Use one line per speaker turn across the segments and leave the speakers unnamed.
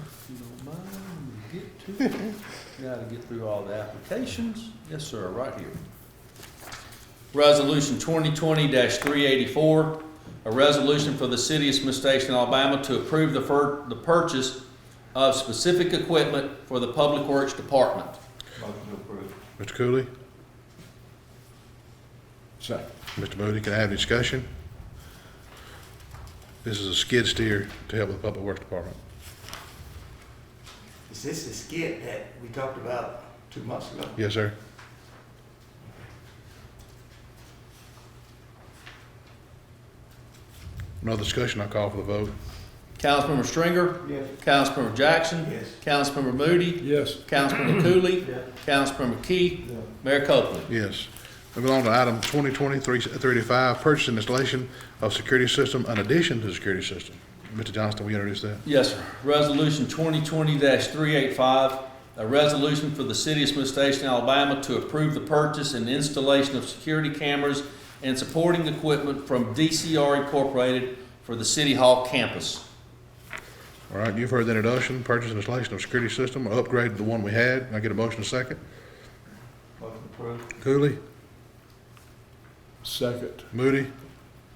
Got to get through all the applications. Yes, sir, right here. Resolution twenty twenty three eighty-four, a resolution for the city of Smith Station, Alabama to approve the fir, the purchase of specific equipment for the Public Works Department.
Mr. Cooley?
Second.
Mr. Moody, can I have a discussion? This is a skid steer to help with the Public Works Department.
Is this the skit that we talked about two months ago?
Yes, sir. No discussion, I call for the vote.
Councilmember Stringer?
Yes.
Councilmember Jackson?
Yes.
Councilmember Moody?
Yes.
Councilmember Cooley?
Yeah.
Councilmember Key?
Yeah.
Mayor Copeland?
Yes. Moving on to item 2020-335, purchase and installation of security system in addition to the security system. Mr. Johnston, will you introduce that?
Yes, sir. Resolution twenty twenty three eight five, a resolution for the city of Smith Station, Alabama to approve the purchase and installation of security cameras and supporting equipment from DCR Incorporated for the City Hall campus.
All right, you've heard the introduction, purchase and installation of security system, or upgrade to the one we had. Can I get a motion second?
Motion approved.
Cooley,
Second.
Moody,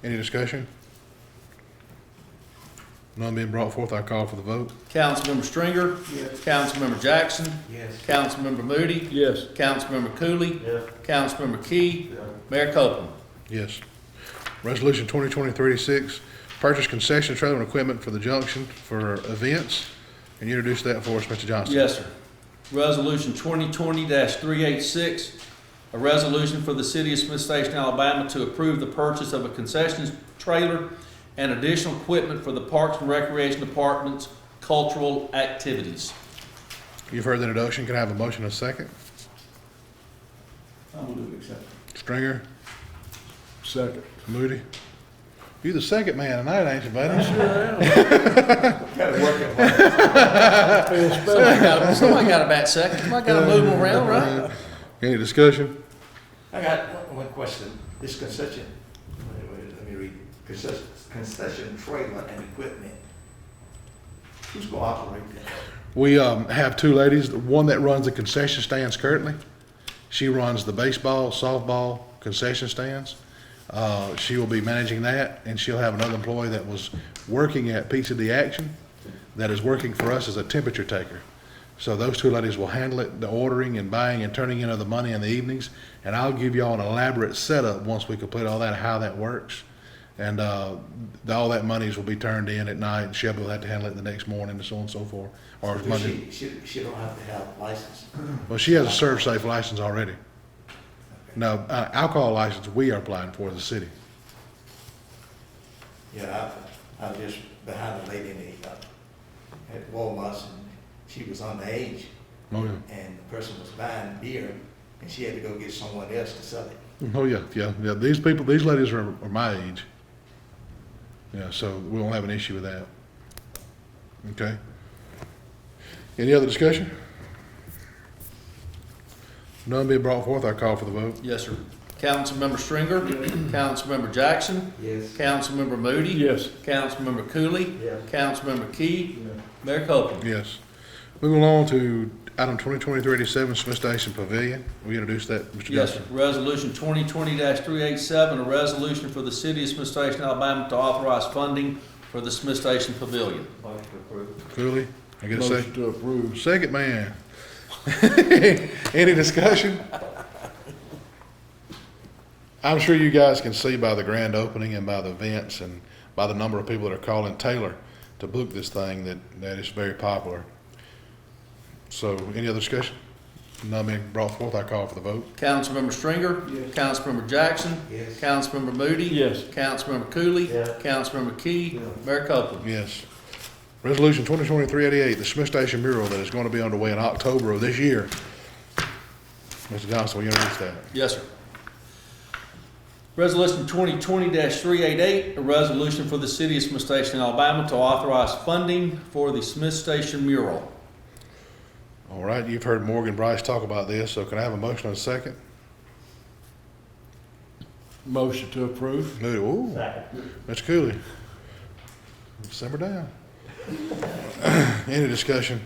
any discussion? None being brought forth, I call for the vote.
Councilmember Stringer?
Yes.
Councilmember Jackson?
Yes.
Councilmember Moody?
Yes.
Councilmember Cooley?
Yeah.
Councilmember Key?
Yeah.
Mayor Copeland?
Yes. Resolution 2020-36, purchase concession trailer and equipment for the junction for events. Can you introduce that for us, Mr. Johnston?
Yes, sir. Resolution twenty twenty three eight six, a resolution for the city of Smith Station, Alabama to approve the purchase of a concessions trailer and additional equipment for the Parks and Recreation Department's cultural activities.
You've heard the introduction, can I have a motion and a second?
I will do accept.
Stringer,
Second.
Moody? You the second man tonight, ain't you, buddy?
Gotta work it hard.
Somebody got, somebody got a bat second, somebody got to move them around, right?
Any discussion?
I got one- one question. This concession, wait, wait, let me read it. Concession, concession trailer and equipment. Who's gonna operate that?
We um, have two ladies, the one that runs the concession stands currently. She runs the baseball, softball concession stands. Uh, she will be managing that, and she'll have another employee that was working at Pizza D Action that is working for us as a temperature taker. So those two ladies will handle it, the ordering and buying and turning in of the money in the evenings. And I'll give y'all an elaborate setup once we complete all that, how that works. And uh, all that monies will be turned in at night, and Shelby will have to handle it the next morning, and so on and so forth, or Monday.
She, she, she don't have to have license.
Well, she has a serve safe license already. No, uh, alcohol license we are applying for the city.
Yeah, I, I was just behind a lady in the, uh, at Walmart, and she was underage,
Oh,
and the person was buying beer, and she had to go get someone else to sell it.
yeah. Oh, yeah, yeah, yeah. These people, these ladies are, are my age. Yeah, so we won't have an issue with that. Okay. Any other discussion? None being brought forth, I call for the vote.
Yes, sir. Councilmember Stringer? Councilmember Jackson?
Yes.
Councilmember Moody?
Yes.
Councilmember Cooley?
Yeah.
Councilmember Key? Mayor Copeland?
Yes. Moving along to item twenty twenty-three eighty-seven, Smith Station Pavilion. We introduced that, Mr.
Yes,
Johnson.
sir. Resolution twenty twenty three eight seven, a resolution for the city of Smith Station, Alabama to authorize funding for the Smith Station Pavilion.
Motion approved.
Cooley, I get a second?
Motion to approve.
Second man. Any discussion? I'm sure you guys can see by the grand opening and by the events and by the number of people that are calling Taylor to book this thing that, that is very popular. So any other discussion? None being brought forth, I call for the vote.
Councilmember Stringer?
Yes.
Councilmember Jackson?
Yes.
Councilmember Moody?
Yes.
Councilmember Cooley?
Yeah.
Councilmember Key?
Yeah.
Mayor Copeland?
Yes. Resolution 2023-88, the Smith Station mural that is going to be underway in October of this year. Mr. Johnson, will you introduce that?
Yes, sir. Resolution twenty twenty three eight eight, a resolution for the city of Smith Station, Alabama to authorize funding for the Smith Station mural.
All right, you've heard Morgan Bryce talk about this, so can I have a motion and a second?
Motion to approve.
Moody, ooh, Mr. Cooley. Simmer down. Any discussion?